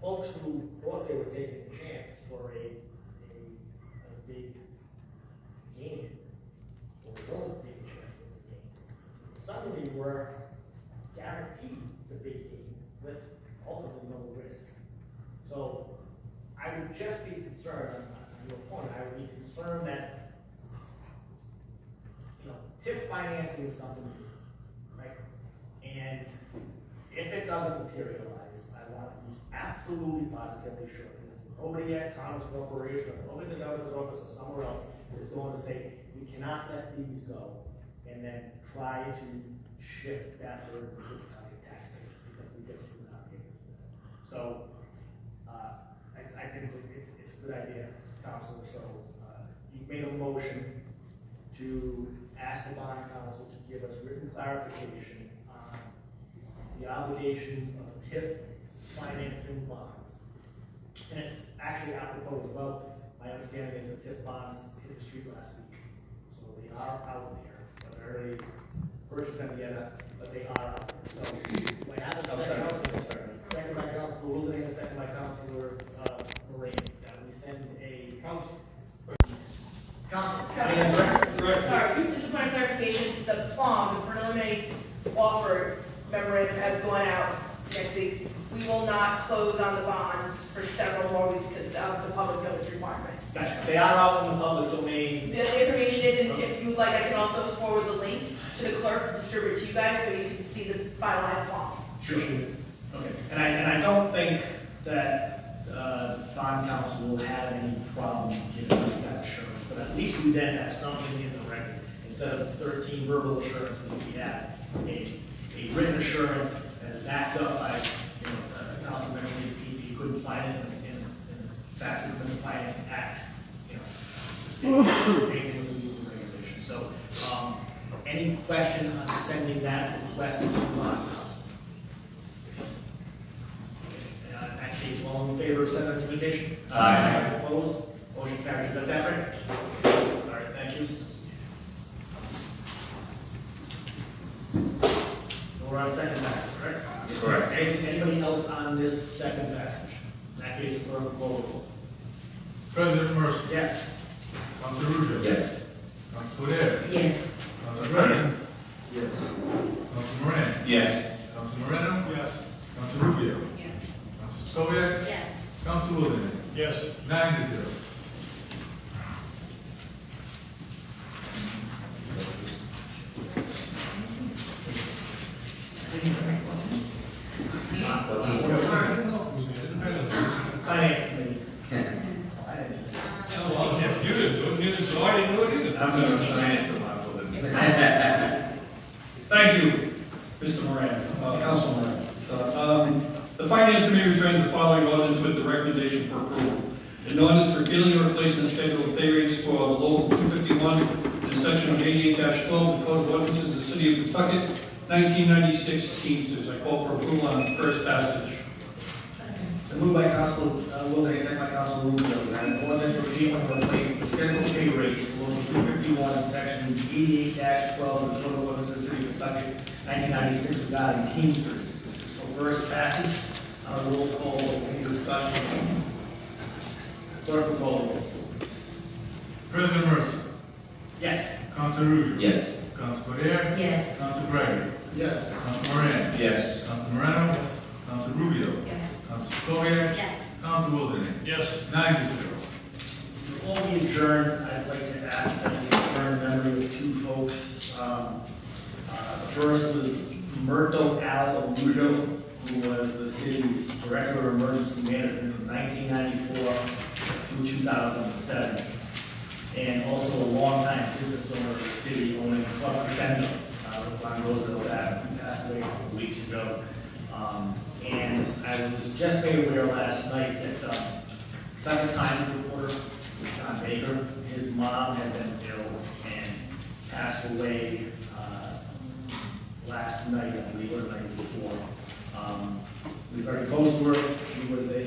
folks who thought they were taking a chance for a, a, a big gain, or don't take a chance for the gain, suddenly were guaranteed the big gain with ultimately no risk. So I would just be concerned, on on your point, I would be concerned that, you know, TIF financing is something new, right? And if it doesn't materialize, I want to be absolutely positively sure. that Nobody at Commerce Corporation, or nobody in the governor's office or somewhere else is going to say, we cannot let these go, and then try to shift that burden to the county taxpayers, because we just do not be able to do that. So, uh, I, I think it's, a- it's, it's a good idea, council, so, uh, you've made a motion to ask the bond council to give us written clarification on the obligations of TIF financing bonds. And it's actually apropos as well, my understanding is that TIF bonds hit the street last week, so they are out there, whether they purchase them yet, but they are out there, so. Do I have a second? Second by Council Woolley, and second by Councilor, uh, Moran, that we send a. Council. Council. All right, just a point of clarification, the PLOM, the preliminary offer memorandum has gone out next week. We will not close on the bonds for several more weeks because of the public notice requirements. Gotcha. They are out in the public domain. The information is, and if you would like, I can also forward the link to the clerk, distribute it to you guys so you can see the finalized PLOM. Sure. Okay, and I, and I don't think that, uh, bond council will have any problem giving us that assurance, but at least we then have something in the record. Instead of thirteen verbal assurances, we have a, a written assurance that is backed up by, you know, uh, council member, if you couldn't find it in, in, in the facts of the finance act, you know. Same with the legal regulation, so, um, any question on sending that request to bond council? Uh, In that case, all in favor of said recommendation? Aye. Opposed? Motion carries. Is that that right? All right, thank you. We're on second passage, right? Correct. Any- Anybody else on this second passage? In that case, we're on roll. President Mercer. Yes? Council Ruzo. Yes. Council Adair. Yes. Council Brennan. Yes. Council Moran. Yes. Council Moreno. Yes. Council Rubio. Yes. Council Stoyek. Yes. Council Lozey. Yes. Nine to zero. Finance committee. I didn't- Well, if you didn't do it, neither so I didn't do it either. I'm gonna sign it tomorrow. Thank you, Mr. Moran, uh, Council Moran. Uh, um, The Finance Committee returns the following ordinance with the recommendation for approval. An ordinance repealing and replacing the schedule of pay rates for Local 251 in Section 88-12 of the Code of Ordinances of the City of Pawtucket, 1996 Teamsters. I call for approval on first passage. So moved by Council, uh, Wilkins, second by Council Rubio, that an ordinance repealing and replacing the scheduled pay rate for local two fifty-one, section eighty-eight twelve of the Code of Ordinances of the City of Pawtucket, nineteen ninety-six, regarding Teamsters. This is for first passage, uh, roll call, any discussion? Clerk will call the roll. President Mercer. Yes. Council Ruzo. Yes. Council Adair. Yes. Council Gregory. Yes. Council Moran. Yes. Council Moreno. Yes. Council Rubio. Yes. Council Stoyek. Yes. Council Lozey. Yes. Nine to zero. Before we adjourn, I'd like to ask that we adjourn in memory of two folks. Um, uh, The first was Murto Al Alujo, who was the city's Director of Emergency Management from 1994 through 2007, and also a longtime business owner of the city, owning Club Crescendo uh, on Roosevelt Avenue, passed away a couple weeks ago. Um, And I was just made aware last night that um, Second Times reporter, John Baker, his mom had been ill and passed away uh, last night, I believe, or the night before. Um, We very close to her, she was a